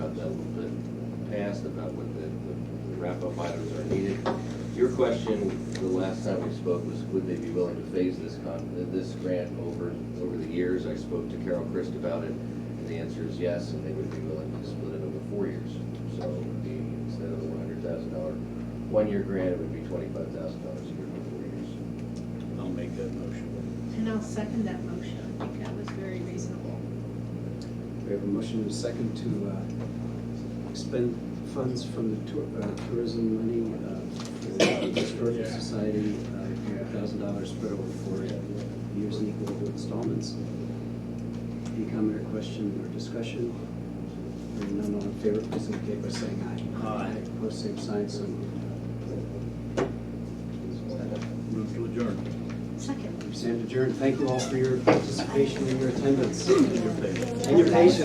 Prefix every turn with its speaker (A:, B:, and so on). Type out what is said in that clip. A: asked about what the the wrap-up items are needed. Your question, the last time we spoke, was would they be willing to phase this con, this grant over, over the years? I spoke to Carol Christ about it, and the answer is yes, and they would be willing to split it over four years. So it would be, instead of the one hundred thousand dollar, one-year grant, it would be twenty-five thousand dollars a year for four years.
B: I'll make that motion.
C: And I'll second that motion. I think that was very reasonable.
D: We have a motion and a second to uh, expend funds from the tour- uh, tourism money uh, for the Historical
B: Yeah.
D: Society, uh, thousand dollars spread over four years in equal installments. Any comment or question or discussion? Hearing none, all in favor, please indicate by saying aye.
B: Aye.
D: Opposed, same sign, so moved.
B: Move to adjourn.
C: Second.
D: We stand adjourned. Thank you all for your participation and your attendance and
B: Your favor.
D: your patience.